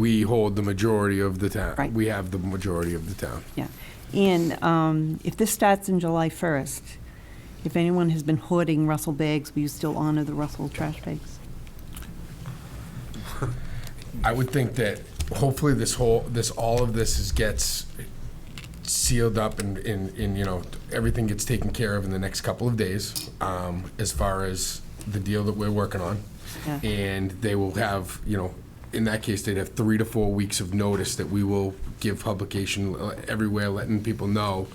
we hold the majority of the town. Right. We have the majority of the town. Yeah. And um, if this starts in July 1st, if anyone has been hoarding Russell bags, will you still honor the Russell trash bags? I would think that hopefully this whole, this, all of this is gets sealed up and, and, and, you know, everything gets taken care of in the next couple of days, um, as far as the deal that we're working on. Yeah. And they will have, you know, in that case, they'd have three to four weeks of notice that we will give publication uh, everywhere, letting people know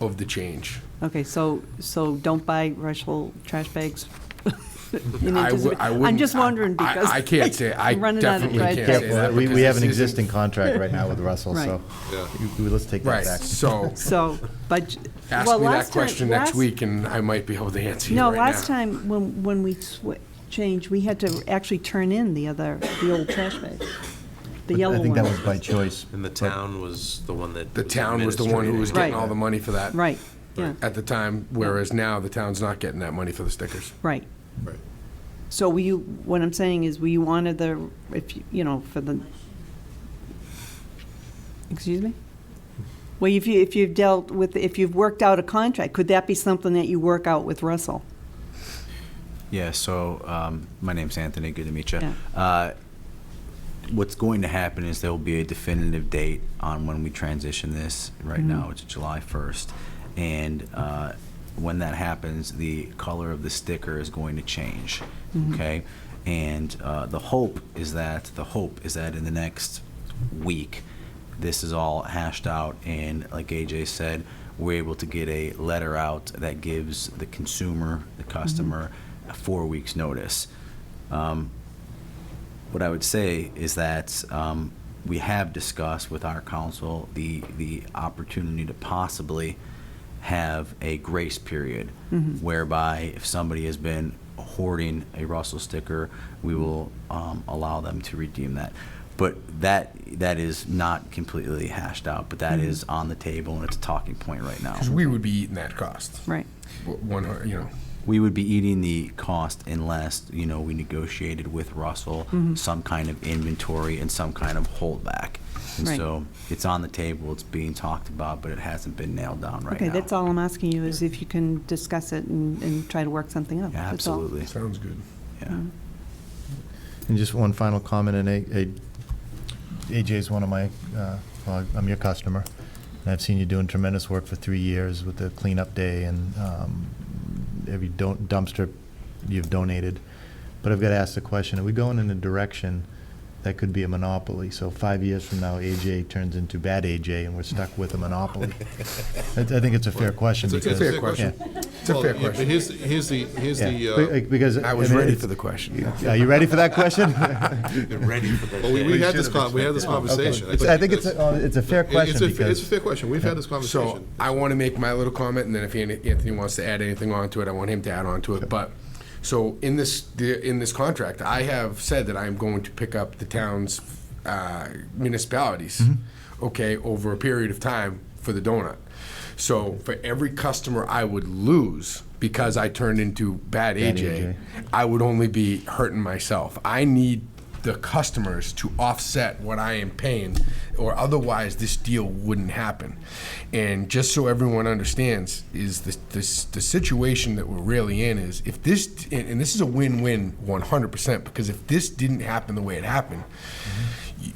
of the change. Okay, so, so don't buy Russell trash bags? in I wou- anticipation- I I'm wouldn't- just wondering I- I- because. I can't say- I I'm running out of definitely trash can't bags. say Well, that we, because we have an this isn't- existing contract right now with Russell, so Right. we- we- let's take that Right, back. so So, but, ask well, me that last time- question next last- week and I might be able to answer you No, right now. last time, when, when we swi- changed, we had to actually turn in the other, the old trash bags, the yellow I think that was one. by choice. And the but- town was the one that. The town was the one who was administrating getting all the money for that. Right, yeah, At the time, whereas now the town's not getting that money for the stickers. right. Right. So will you, what I'm saying is, will you honor the, if, you you know, for the, excuse me? Well, if you, if you've dealt with, if you've worked out a contract, could that be something that you work out with Russell? Yeah, so, um, my name's Anthony, good to meet you. Yeah. Uh, What's going to happen is there will be a definitive date on when we transition this. Right now, it's July 1st. And uh, when that happens, the color of the sticker is going to change, okay? And uh, the hope is that, the hope is that in the next week, this is all hashed out, and like AJ said, we're able to get a letter out that gives the consumer, the customer, a four weeks' notice. Um, What I would say is that um, we have discussed with our council the, the opportunity to possibly have a grace period whereby if somebody has been hoarding a Russell sticker, we will um, allow them to redeem that. But that, that is not completely hashed out, but that is on the table and it's a talking point right now. Because we would be eating that cost. Right. W- One, hun- you know, We would be eating the cost unless, you know, we negotiated with Russell Mm-hmm. some kind of inventory and some kind of holdback. And Right. so it's on the table, it's being talked about, but it hasn't been nailed down right now. Okay, that's all I'm asking you, is if you can discuss it and, and try to work something out. Yeah, That's all. Absolutely, sounds good. yeah. And just one final comment, and A- A- AJ's one of my, uh, well, I'm your customer, and I've seen you doing tremendous work for three years with the cleanup day and um, every don- dumpster you've donated. But I've got to ask the question, are we going in a direction that could be a monopoly? So five years from now, AJ turns into bad AJ, and we're stuck with a monopoly. I I think it's a fair question. It's a- because- it's a fair question. Yeah, It's a fair Well, yeah, But question. here's, here's the, uh, here's yeah. the, Be- Because. I was mean, ready it's- for the question. Are you ready for that question? uh, well, we- we had this, con- we had this Okay. conversation. It's- I think it's, a- uh, it's a fair It- it's question a- It's a because, fair question, we've had this So conversation. I want to make my little comment, and then if An- Anthony wants to add anything onto it, I want him to add on to it. But, so in this, the- in this contract, I have said that I'm going to pick up the town's uh, municipalities, okay, over a period of time for the donut. So for every customer I would lose because I turned into bad AJ, AJ. I would only be hurting myself. I need the customers to offset what I am paying, or otherwise this deal wouldn't happen. And just so everyone understands, is this, this the situation that we're really in is if this and, and this is a win-win 100% because if this didn't happen the way it happened,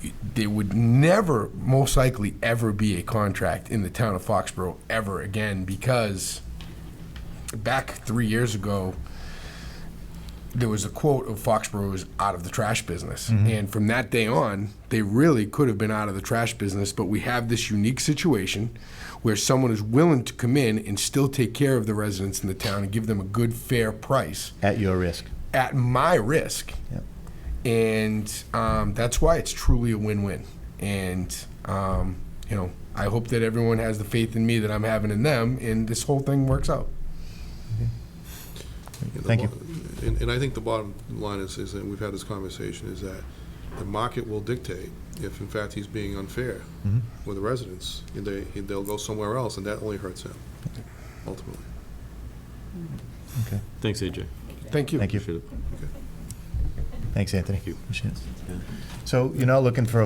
y- there would never, most likely, ever be a contract in the town of Foxborough ever again because back three years ago, there was a quote of Foxborough is out of the trash business. And from that day on, they really could have been out of the trash business, but we have this unique situation where someone is willing to come in and still take care of the residents in the town and give them a good, fair price at your risk. at my risk. Yep. And um, that's why it's truly a win win. And, um, you know, I hope that everyone has the faith in me that I'm having in them and this whole thing works out. And the Thank you. bo- And, and I think the bottom line is, is that we've had this conversation, is that the market will dictate if in fact he's being unfair Mm-hmm. with the residents. and They, they'll go somewhere else, and that only hurts him, ultimately. Okay, Thanks, AJ. Thank you. thank you. Appreciate it. Thanks, Anthony. you. Appreciate it. So you're not looking for a